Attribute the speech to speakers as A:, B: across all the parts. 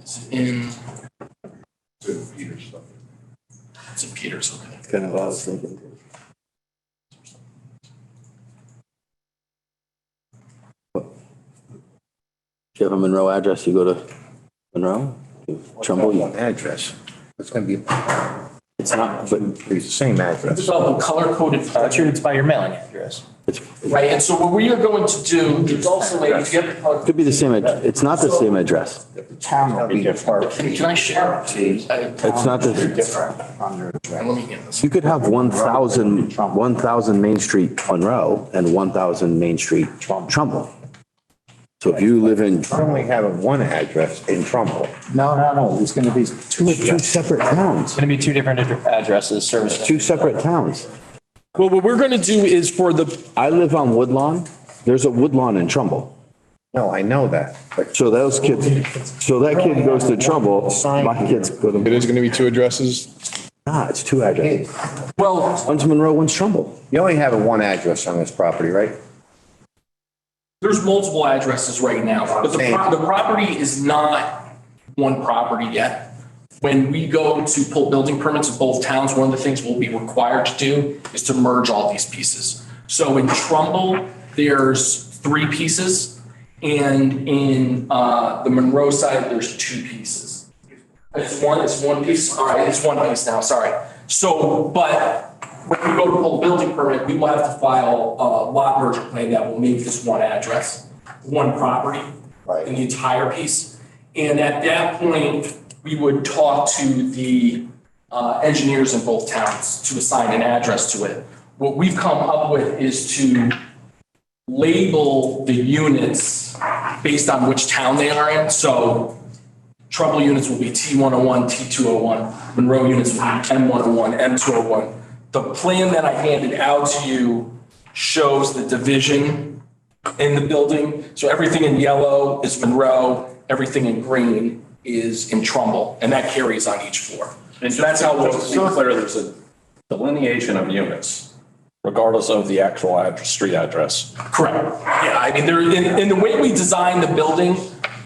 A: It's in,
B: to Peter's stuff.
A: it's in Peters, okay.
C: That's kind of what I was thinking. too. Do you have a Monroe address? You go to Monroe? Trumbull?
D: Trumbull
C: you-
D: address. It's going to be
C: It's not, but
D: it's the same address.
A: It's all color coded.
E: Richard, it's by your mailing address.
C: it's, it
A: Right, and so what we are going to do is also, if you have the color.
C: could be the same, ad- it's not the same address.
D: Town will be different.
A: Can I share?
C: It's not the,
D: Different on your address.
A: Let me get this.
C: you could have 1,000, 1,000 Main Street Monroe and 1,000 Main Street Trumbull. So if you live in,
D: I only have one address in Trumbull. No, no, no, it's going to be two
C: two
D: addresses.
C: separate towns,
E: It's going to be two different ad- addresses, service.
C: two separate towns.
A: Well, what we're gonna do is for the,
C: I live on Woodlawn. There's a Woodlawn in Trumbull.
D: No, I know that, but
C: So those kids, so that kid goes to Trumbull, my kids go
B: It
C: to,
B: is gonna be two addresses?
C: nah, it's two addresses.
A: well,
C: One's Monroe, one's Trumbull.
D: you only have one address on this property, right?
A: there's multiple addresses right now, but the, pro-
D: Same.
A: the property is not one property yet. When we go to pull building permits of both towns, one of the things we'll be required to do is to merge all these pieces. So in Trumbull, there's three pieces, and in, uh, the Monroe side, there's two pieces. It's one, it's one piece, all right, it's one piece now, sorry. So, but when we go to pull a building permit, we will have to file a lot merger plan that will make this one address, one property.
D: Right.
A: In the entire piece. And at that point, we would talk to the uh, engineers in both towns to assign an address to it. What we've come up with is to label the units based on which town they are in. So Trumbull units will be T101, T201, Monroe units will be M101, M201. The plan that I handed out to you shows the division in the building. So everything in yellow is Monroe, everything in green is in Trumbull, and that carries on each floor.
F: And
A: So that's how we'll.
F: Just to be clear, there's a delineation of units, regardless of the actual address, street address.
A: Correct. Yeah, I mean, there, and, and the way we designed the building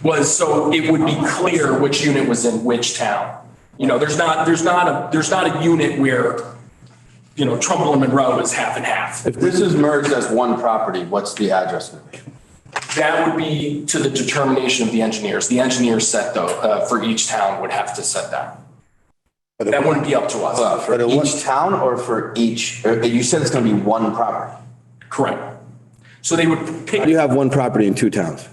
A: was so it would be clear which unit was in which town. You know, there's not, there's not a, there's not a unit where, you know, Trumbull and Monroe is half and half.
G: If this is merged as one property, what's the address going to be?
A: That would be to the determination of the engineers. The engineers set though, uh, for each town would have to set that. That wouldn't be up to
G: Uh,
A: us.
G: For each town or for each, or you said it's going to be one property?
A: Correct. So they would pick.
C: You have one property in two towns.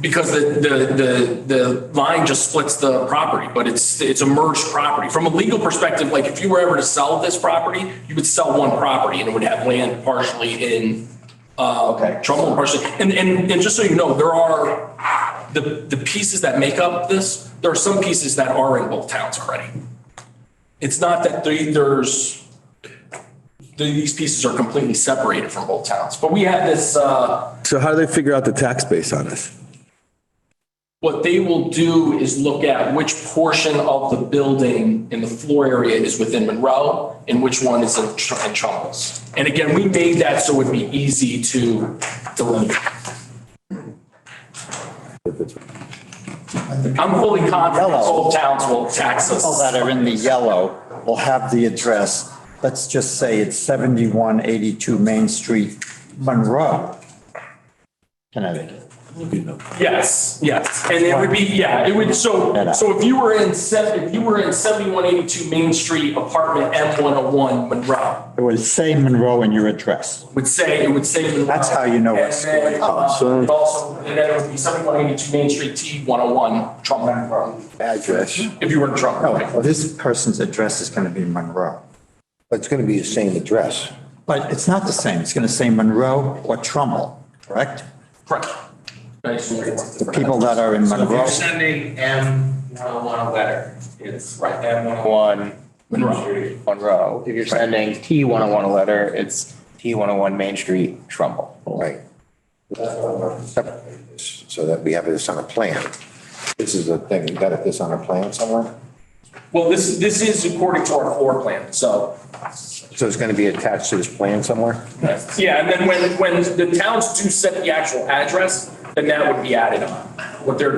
A: Because the, the, the, the line just splits the property, but it's, it's a merged property. From a legal perspective, like if you were ever to sell this property, you would sell one property and it would have land partially in, uh,
G: Okay.
A: Trumbull and partially. And, and, and just so you know, there are, the, the pieces that make up this, there are some pieces that are in both towns already. It's not that they, there's, these pieces are completely separated from both towns. But we had this, uh,
C: So how do they figure out the tax base on this?
A: What they will do is look at which portion of the building in the floor area is within Monroe and which one is in Tr- in Trumbull's. And again, we made that so it'd be easy to delineate. I'm fully confident both towns will tax us.
H: All that are in the yellow will have the address, let's just say it's 7182 Main Street, Monroe, Connecticut.
A: Yes, yes. And it would be, yeah, it would, so, so if you were in, se- if you were in 7182 Main Street, apartment M101, Monroe,
H: It will say Monroe in your address.
A: would say, it would say. Monroe.
H: That's how you know what's
A: And then,
H: going
A: uh,
H: on.
C: so-
A: it Also, and then it would be seventy-one eighty-two Main Street, T one oh one, Trump,
D: address,
A: if you were in Trump.
H: No,
A: right?
H: Oh, well, this person's address is going to be Monroe.
D: but it's going to be the same address.
H: But it's not the same. It's going to say Monroe or Trumbull, correct?
A: Correct. Nice.
H: The people that are in Monroe.
I: sending M one oh one a letter, it's
A: Right.
I: M one oh one.
A: Monroe.
I: Monroe. If you're sending T one oh one a letter, it's T one oh one Main Street, Trumbull.
D: Right. Separate this So that we have this on a plan. This is the thing, you got this on a plan somewhere?
A: Well, this, this is according to our floor plan, so.
D: So it's going to be attached to this plan somewhere?
A: Yeah, and then when, when the towns do set the actual address, then that would be added on. What they're